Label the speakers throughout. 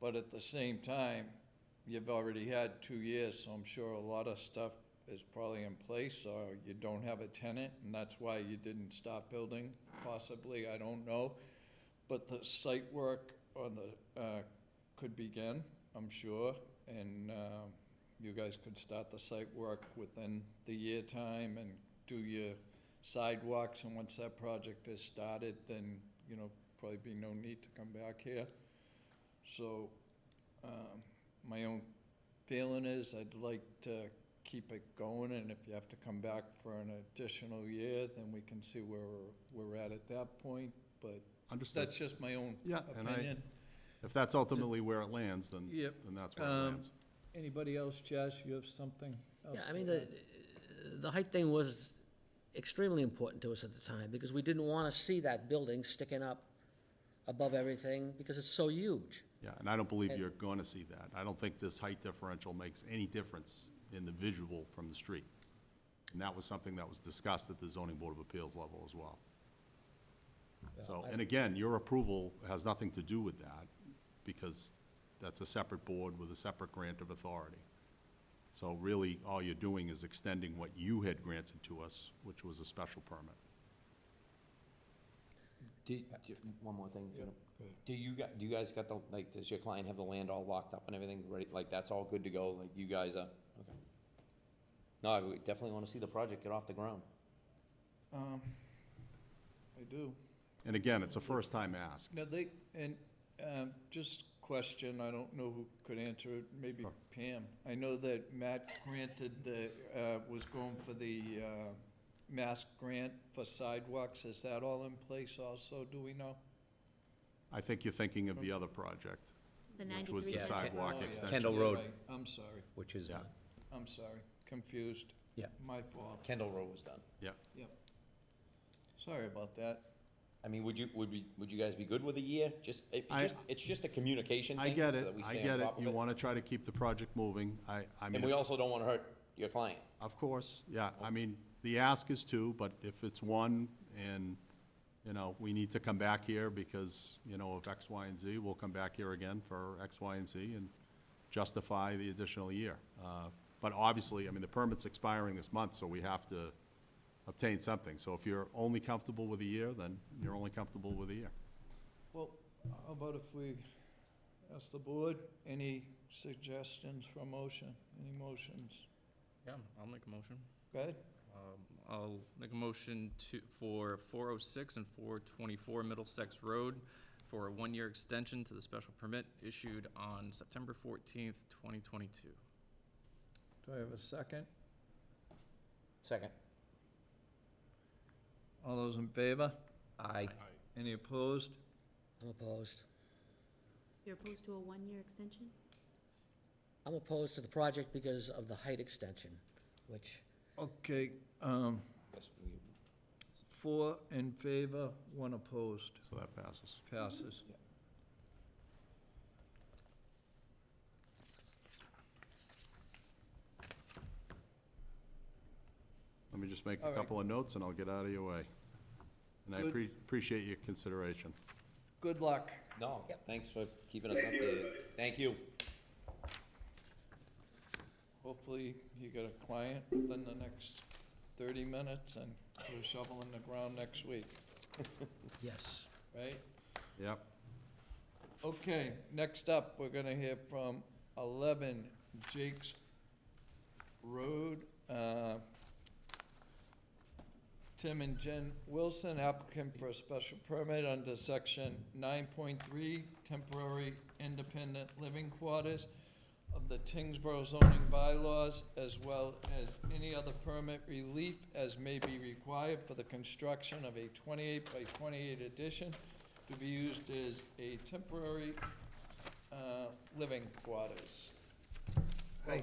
Speaker 1: But at the same time, you've already had two years, so I'm sure a lot of stuff is probably in place, or you don't have a tenant, and that's why you didn't stop building, possibly, I don't know. But the site work on the, uh, could begin, I'm sure, and, um, you guys could start the site work within the year time and do your sidewalks, and once that project is started, then, you know, probably be no need to come back here. So, um, my own feeling is I'd like to keep it going, and if you have to come back for an additional year, then we can see where we're, we're at at that point, but
Speaker 2: Understood.
Speaker 1: that's just my own
Speaker 2: Yeah, and I,
Speaker 1: opinion.
Speaker 2: if that's ultimately where it lands, then,
Speaker 1: Yep.
Speaker 2: then that's where it
Speaker 1: Um,
Speaker 2: lands.
Speaker 1: Anybody else, Josh, you have something? else
Speaker 3: Yeah, I mean,
Speaker 1: to
Speaker 3: the,
Speaker 1: add?
Speaker 3: the height thing was extremely important to us at the time, because we didn't want to see that building sticking up above everything, because it's so huge.
Speaker 2: Yeah, and I don't believe you're going to see that. I don't think this height differential makes any difference in the visual from the street. And that was something that was discussed at the zoning board of appeals level as well. So, and again, your approval has nothing to do with that, because that's a separate board with a separate grant of authority. So really, all you're doing is extending what you had granted to us, which was a special permit.
Speaker 4: Do, uh, do- one more thing, if you don't- do you, gu- do you guys got the, like, does your client have the land all locked up and everything, ready, like, that's all good to go, like, you guys are, okay? No, I would definitely wanna see the project get off the ground.
Speaker 1: Um, I do.
Speaker 2: And again, it's a first-time ask.
Speaker 1: Now, they, and, um, just question, I don't know who could answer it, maybe Pam. I know that Matt granted the, uh, was going for the, uh, mask grant for sidewalks. Is that all in place also, do we know?
Speaker 2: I think you're thinking of the other project,
Speaker 5: The
Speaker 2: which was the
Speaker 5: ninety-three.
Speaker 4: side-
Speaker 2: sidewalk
Speaker 1: Oh, yeah.
Speaker 2: extension.
Speaker 4: Kendall
Speaker 1: You're
Speaker 4: Road.
Speaker 1: right. I'm sorry,
Speaker 4: Which is
Speaker 2: Yeah.
Speaker 4: done.
Speaker 1: I'm sorry, confused.
Speaker 4: Yeah.
Speaker 1: My fault,
Speaker 4: Kendall Road was done.
Speaker 2: Yeah,
Speaker 1: yep. Sorry about that.
Speaker 4: I mean, would you, would we, would you guys be good with a year? Just, it,
Speaker 2: I-
Speaker 4: just, it's just a communication
Speaker 2: I
Speaker 4: thing, so
Speaker 2: get it,
Speaker 4: that we
Speaker 2: I
Speaker 4: stay on
Speaker 2: get it.
Speaker 4: top of
Speaker 2: You
Speaker 4: it.
Speaker 2: want to try to keep the project moving. I, I mean,
Speaker 4: And we
Speaker 2: if-
Speaker 4: also don't wanna hurt your client.
Speaker 2: of course, yeah. I mean, the ask is two, but if it's one and, you know, we need to come back here because, you know, of X, Y, and Z, we'll come back here again for X, Y, and Z and justify the additional year. Uh, But obviously, I mean, the permit's expiring this month, so we have to obtain something. So if you're only comfortable with a year, then you're only comfortable with a year.
Speaker 1: Well, how about if we ask the board, any suggestions for motion, any motions?
Speaker 6: Yeah, I'll make a motion.
Speaker 1: Go ahead.
Speaker 6: Um, I'll make a motion to, for 406 and 424 Middlesex Road for a one-year extension to the special permit issued on September 14th, 2022.
Speaker 1: Do I have a second?
Speaker 4: Second.
Speaker 1: All those in favor?
Speaker 4: I,
Speaker 1: Any opposed?
Speaker 3: I'm opposed.
Speaker 5: You're opposed to a one-year extension?
Speaker 3: I'm opposed to the project because of the height extension, which,
Speaker 1: Okay, um, four in favor, one opposed,
Speaker 2: So that passes.
Speaker 1: passes.
Speaker 2: Let me just make
Speaker 1: All
Speaker 2: a
Speaker 1: right.
Speaker 2: couple of notes and I'll get out of your way. And I
Speaker 1: Good.
Speaker 2: appre- appreciate your consideration.
Speaker 1: Good luck.
Speaker 4: no, thanks for keeping us updated. Thank you.
Speaker 1: Hopefully, you get a client within the next thirty minutes and we're shoveling the ground next week,
Speaker 3: yes.
Speaker 1: right?
Speaker 2: Yep.
Speaker 1: Okay, next up, we're gonna hear from eleven Jake's Road. Uh, Tim and Jen Wilson, applicant for a special permit under section nine point three, temporary independent living quarters of the Tingsboro zoning bylaws, as well as any other permit relief as may be required for the construction of a twenty-eight by twenty-eight addition to be used as a temporary, uh, living quarters.
Speaker 7: Hi,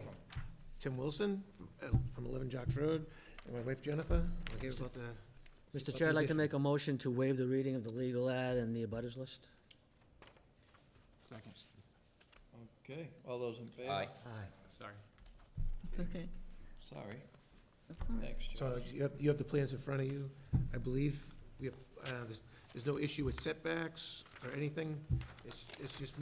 Speaker 7: Tim Wilson from- uh, from 11 Jocks Road, and my wife Jennifer. We're here about the...
Speaker 3: Mr. Chair, I'd like to make a motion to waive the reading of the legal ad and the abutters list.
Speaker 6: Second.
Speaker 1: Okay, all those in favor?
Speaker 4: Aye.
Speaker 3: Aye.
Speaker 6: Sorry.
Speaker 8: It's okay.
Speaker 1: Sorry,
Speaker 8: That's all right.
Speaker 1: thanks,
Speaker 7: So
Speaker 1: Josh.
Speaker 7: you have, you have the plans in front of you. I believe we have, uh, there's, there's no issue with setbacks or anything. It's, it's just